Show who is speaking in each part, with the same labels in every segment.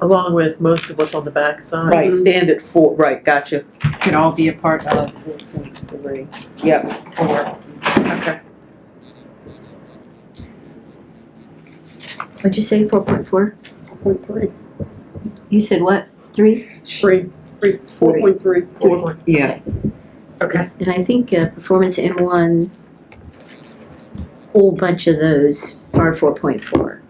Speaker 1: along with most of what's on the back side.
Speaker 2: Right, stand at four, right, gotcha.
Speaker 3: Could all be a part of four point three.
Speaker 2: Yep,
Speaker 3: Four.
Speaker 2: okay.
Speaker 4: What'd you say, four point four?
Speaker 5: Point three.
Speaker 4: You said what, three?
Speaker 5: Three, three, four point three.
Speaker 1: Four.
Speaker 2: Yeah,
Speaker 5: Okay.
Speaker 4: And I think uh, performance M one, whole bunch of those are four point four.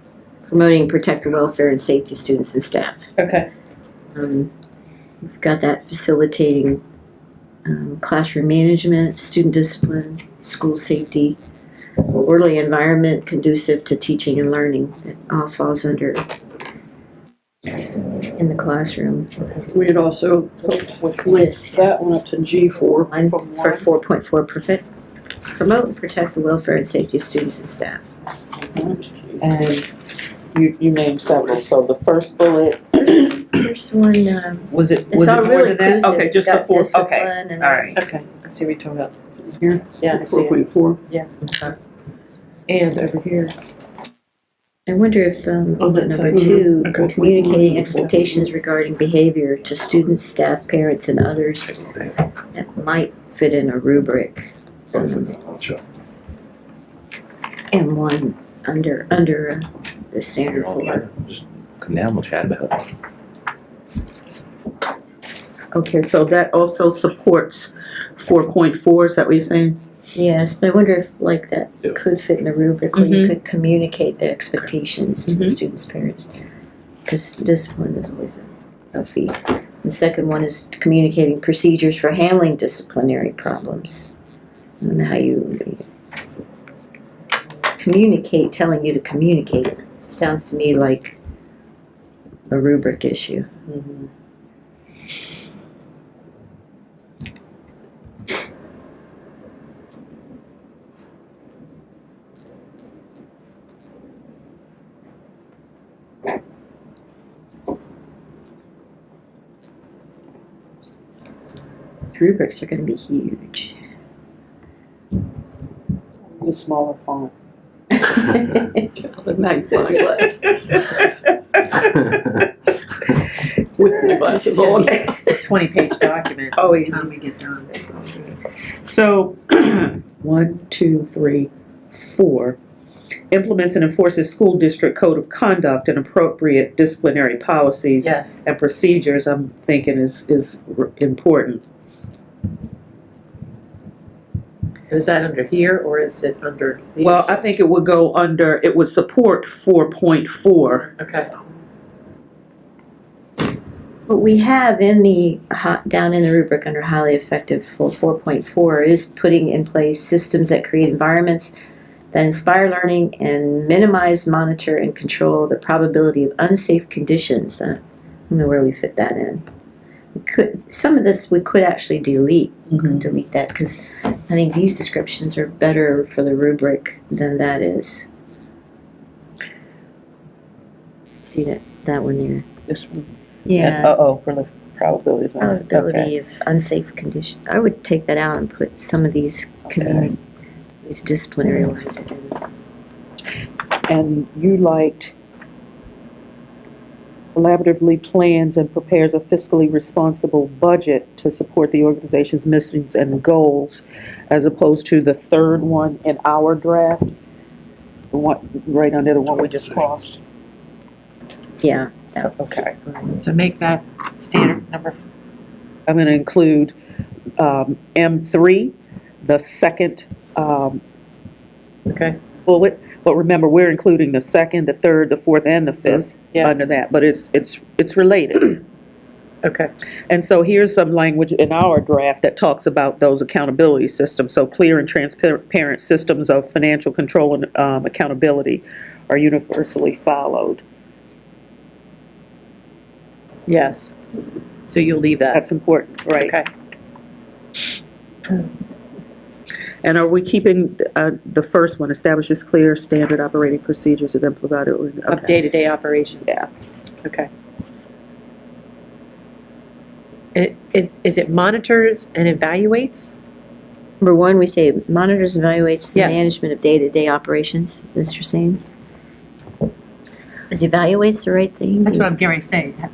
Speaker 4: Promoting, protect the welfare and safety of students and staff.
Speaker 2: okay.
Speaker 4: Um, We've got that facilitating um, classroom management, student discipline, school safety, orderly environment conducive to teaching and learning. It all falls under in the classroom
Speaker 5: We had also put
Speaker 4: list.
Speaker 5: that one up to G four.
Speaker 4: One for four point four, perfect, promote and protect the welfare and safety of students and staff.
Speaker 2: And you, you named several, so the first bullet,
Speaker 4: First one, um,
Speaker 2: was it,
Speaker 4: it's
Speaker 2: was
Speaker 4: all
Speaker 2: it more
Speaker 4: really
Speaker 2: than that?
Speaker 4: inclusive.
Speaker 2: Okay,
Speaker 4: It's
Speaker 2: just the
Speaker 4: got
Speaker 2: four, okay,
Speaker 4: discipline and
Speaker 2: all right.
Speaker 1: Okay, I see what you're talking about.
Speaker 5: Here?
Speaker 1: Yeah, I see
Speaker 5: Four
Speaker 1: it.
Speaker 5: point four.
Speaker 1: And over here.
Speaker 4: I wonder if, um,
Speaker 1: Oh,
Speaker 4: bullet
Speaker 1: that's
Speaker 4: number
Speaker 1: like-
Speaker 4: two,
Speaker 5: Mhm. Okay.
Speaker 4: communicating expectations regarding behavior to students, staff, parents, and others that might fit in a rubric. And one under, under uh, the standard four.
Speaker 6: Just Come down, we'll chat about it.
Speaker 7: Okay, so that also supports four point four, is that what you're saying?
Speaker 4: Yes, but I wonder if like that
Speaker 6: Yeah.
Speaker 4: could fit in a rubric where you
Speaker 7: Mhm.
Speaker 4: could communicate the expectations to the
Speaker 7: Mhm.
Speaker 4: students' parents. Because discipline is always a- a fee. The second one is communicating procedures for handling disciplinary problems. I don't know how you communicate, telling you to communicate, sounds to me like a rubric issue.
Speaker 3: Mm-hmm.
Speaker 4: Rubrics are gonna be huge.
Speaker 2: The smaller font.
Speaker 5: The magnifying glass. With the glasses on.
Speaker 3: Twenty-page document. By
Speaker 7: Oh,
Speaker 3: the
Speaker 7: wait,
Speaker 3: time we get done.
Speaker 7: so, one, two, three, four. Implements and enforces school district code of conduct and appropriate disciplinary policies
Speaker 1: Yes.
Speaker 7: and procedures, I'm thinking is, is r- important.
Speaker 1: Is that under here or is it under? the-
Speaker 7: Well, I think it would go under, it would support four point four.
Speaker 1: Okay.
Speaker 4: What we have in the, hi- down in the rubric under highly effective for four point four is putting in place systems that create environments that inspire learning and minimize, monitor, and control the probability of unsafe conditions. Uh, I don't know where we fit that in. We could, some of this we could actually delete, We
Speaker 2: Mm-hmm.
Speaker 4: could delete that, because I think these descriptions are better for the rubric than that is. See that, that one there?
Speaker 2: This one.
Speaker 4: Yeah.
Speaker 2: Uh-oh, for the probabilities.
Speaker 3: Oh,
Speaker 2: Oh, Okay.
Speaker 4: Probability of unsafe condition, I would take that out and put some of these community, these disciplinary ones in.
Speaker 2: And you liked collaboratively plans and prepares a fiscally responsible budget to support the organization's missions and goals, as opposed to the third one in our draft, the one, right under the one we just crossed.
Speaker 4: Yeah,
Speaker 2: Okay.
Speaker 3: So make that standard number
Speaker 2: I'm gonna include, um, M three, the second, um,
Speaker 1: Okay.
Speaker 2: bullet, but remember, we're including the second, the third, the fourth, and the fifth
Speaker 1: Yes.
Speaker 2: under that, but it's, it's, it's related.
Speaker 1: Okay.
Speaker 2: And so here's some language in our draft that talks about those accountability systems, so clear and transparent systems of financial control and um, accountability are universally followed.
Speaker 1: Yes. So you'll leave that.
Speaker 2: That's important, right?
Speaker 1: Okay.
Speaker 7: And are we keeping, uh, the first one, establishes clear standard operating procedures and implemented?
Speaker 1: Of
Speaker 7: okay.
Speaker 1: day-to-day operations?
Speaker 2: Yeah.
Speaker 1: Okay. And it- is, is it monitors and evaluates?
Speaker 4: number one, we say monitors and evaluates the
Speaker 1: Yes.
Speaker 4: management of day-to-day operations, Mr. Singh.
Speaker 8: Because evaluate's the right thing.
Speaker 4: That's what I'm getting ready to say.